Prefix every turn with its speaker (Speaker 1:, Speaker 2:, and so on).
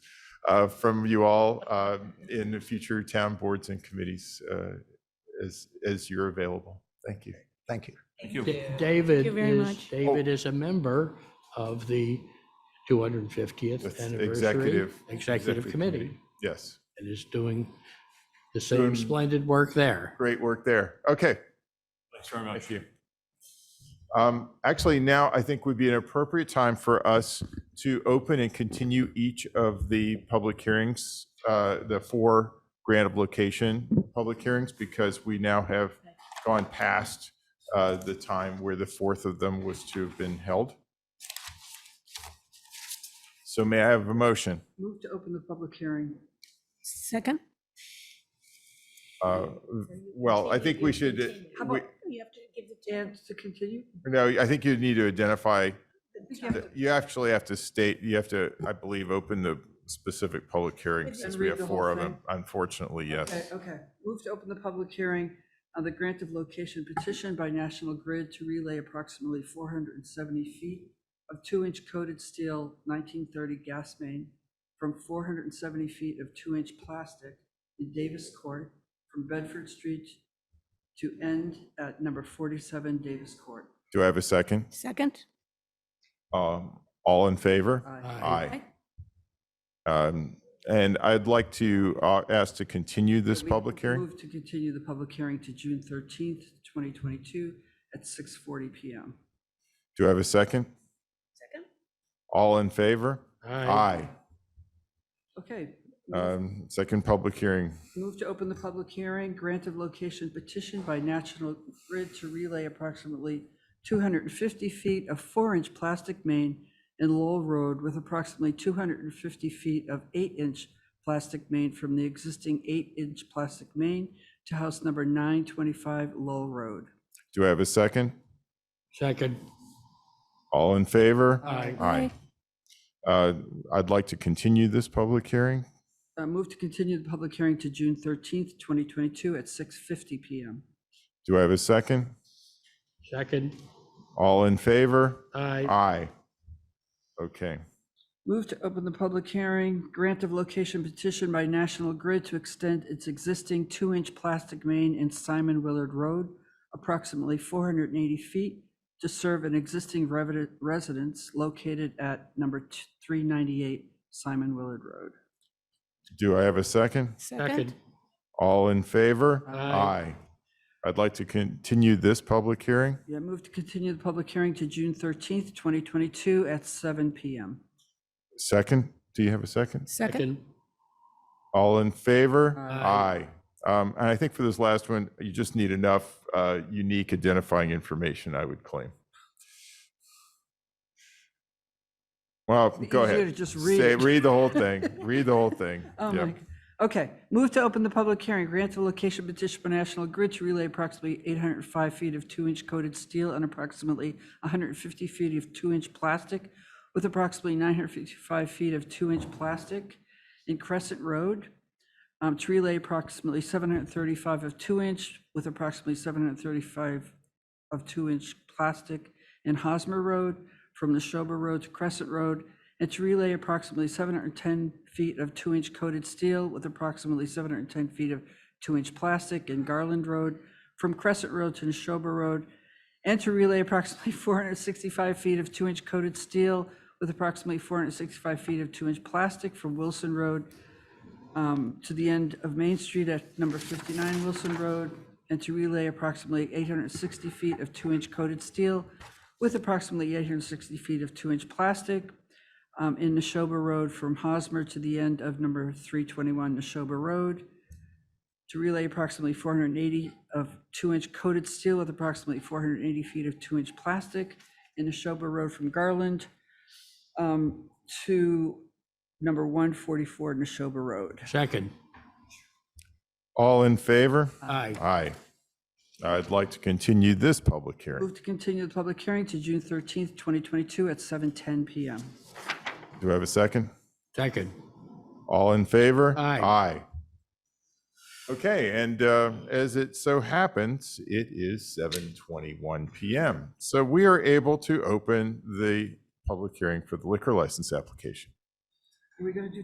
Speaker 1: uh, from you all uh, in the future town boards and committees uh, as, as you're available. Thank you.
Speaker 2: Thank you.
Speaker 3: Thank you.
Speaker 4: Da- David
Speaker 5: you very
Speaker 4: is,
Speaker 5: much.
Speaker 4: David is a member of the 250th
Speaker 1: That's
Speaker 4: anniversary.
Speaker 1: executive-
Speaker 4: Executive Committee
Speaker 1: Yes,
Speaker 4: and is doing the
Speaker 1: Doing-
Speaker 4: same splendid work there.
Speaker 1: great work there. Okay,
Speaker 3: Thanks very much.
Speaker 1: Thank you. Um, Actually, now I think would be an appropriate time for us to open and continue each of the public hearings, uh, the four grant of location public hearings, because we now have gone past uh, the time where the fourth of them was to have been held. So may I have a motion?
Speaker 6: Move to open the public hearing.
Speaker 5: Second?
Speaker 1: Uh, Well, I think we should, uh,
Speaker 6: How
Speaker 1: we-
Speaker 6: about, you have to give the chance to continue?
Speaker 1: no, I think you need to identify
Speaker 6: I think you have to-
Speaker 1: You actually have to state, you have to, I believe, open the specific public hearing
Speaker 6: And
Speaker 1: since we
Speaker 6: read
Speaker 1: have
Speaker 6: the whole
Speaker 1: four of
Speaker 6: thing?
Speaker 1: them, unfortunately,
Speaker 6: Okay,
Speaker 1: yes.
Speaker 6: okay. Move to open the public hearing on the grant of location petition by National Grid to relay approximately 470 feet of two-inch coated steel 1930 gas main from 470 feet of two-inch plastic in Davis Court from Bedford Street to end at number 47 Davis Court.
Speaker 1: Do I have a second?
Speaker 5: Second?
Speaker 1: Um, All in
Speaker 6: Uh,
Speaker 1: favor?
Speaker 4: Aye.
Speaker 1: Aye. Um, And I'd like to uh, ask to continue this
Speaker 6: We
Speaker 1: public hearing.
Speaker 6: Move to continue the public hearing to June 13th, 2022 at 6:40 PM.
Speaker 1: Do I have a second?
Speaker 5: Second.
Speaker 1: All in favor? Aye.
Speaker 6: Okay.
Speaker 1: Um, Second public hearing.
Speaker 6: Move to open the public hearing, grant of location petition by National Grid to relay approximately 250 feet of four-inch plastic main in Lowell Road with approximately 250 feet of eight-inch plastic main from the existing eight-inch plastic main to house number 925 Lowell Road.
Speaker 1: Do I have a second?
Speaker 4: Second.
Speaker 1: All in favor?
Speaker 4: Aye.
Speaker 1: Aye. Uh, I'd like to continue this public hearing.
Speaker 6: Uh, Move to continue the public hearing to June 13th, 2022 at 6:50 PM.
Speaker 1: Do I have a second?
Speaker 4: Second.
Speaker 1: All in favor?
Speaker 4: Aye.
Speaker 1: Aye. Okay.
Speaker 6: Move to open the public hearing, grant of location petition by National Grid to extend its existing two-inch plastic main in Simon Willard Road, approximately 480 feet, to serve an existing revi- residence located at number t- 398 Simon Willard Road.
Speaker 1: Do I have a second?
Speaker 5: Second?
Speaker 1: All in favor?
Speaker 4: Aye.
Speaker 1: I'd like to continue this public hearing.
Speaker 6: Yeah, move to continue the public hearing to June 13th, 2022 at 7 PM.
Speaker 1: Second, do you have a second?
Speaker 5: Second?
Speaker 1: All in favor?
Speaker 4: Aye.
Speaker 1: Um, And I think for this last one, you just need enough uh, unique identifying information, I would claim. Well, go
Speaker 6: Easier
Speaker 1: ahead.
Speaker 6: to just read
Speaker 1: Say-
Speaker 6: it.
Speaker 1: Read the whole thing. Read the whole thing.
Speaker 6: Oh
Speaker 1: Yeah.
Speaker 6: my, okay. Move to open the public hearing, grant the location petition by National Grid to relay approximately 805 feet of two-inch coated steel and approximately 150 feet of two-inch plastic with approximately 955 feet of two-inch plastic in Crescent Road. um, To relay approximately 735 of two-inch with approximately 735 of two-inch plastic in Hosmer Road from the Neshoba Road to Crescent Road, and to relay approximately 710 feet of two-inch coated steel with approximately 710 feet of two-inch plastic in Garland Road from Crescent Road to Neshoba Road, and to relay approximately 465 feet of two-inch coated steel with approximately 465 feet of two-inch plastic from Wilson Road um, to the end of Main Street at number 59 Wilson Road, and to relay approximately 860 feet of two-inch coated steel with approximately 860 feet of two-inch plastic um, in Neshoba Road from Hosmer to the end of number 321 Neshoba Road, to relay approximately 480 of two-inch coated steel with approximately 480 feet of two-inch plastic in Neshoba Road from Garland um, to number 144 Neshoba Road.
Speaker 4: Second.
Speaker 1: All in favor?
Speaker 4: Aye.
Speaker 1: Aye. I'd like to continue this public hearing.
Speaker 6: Move to continue the public hearing to June 13th, 2022 at 7:10 PM.
Speaker 1: Do I have a second?
Speaker 4: Second.
Speaker 1: All in favor?
Speaker 4: Aye.
Speaker 1: Aye. Okay, and uh, as it so happens, it is 7:21 PM. So we are able to open the public hearing for the liquor license application.
Speaker 6: Are we going to do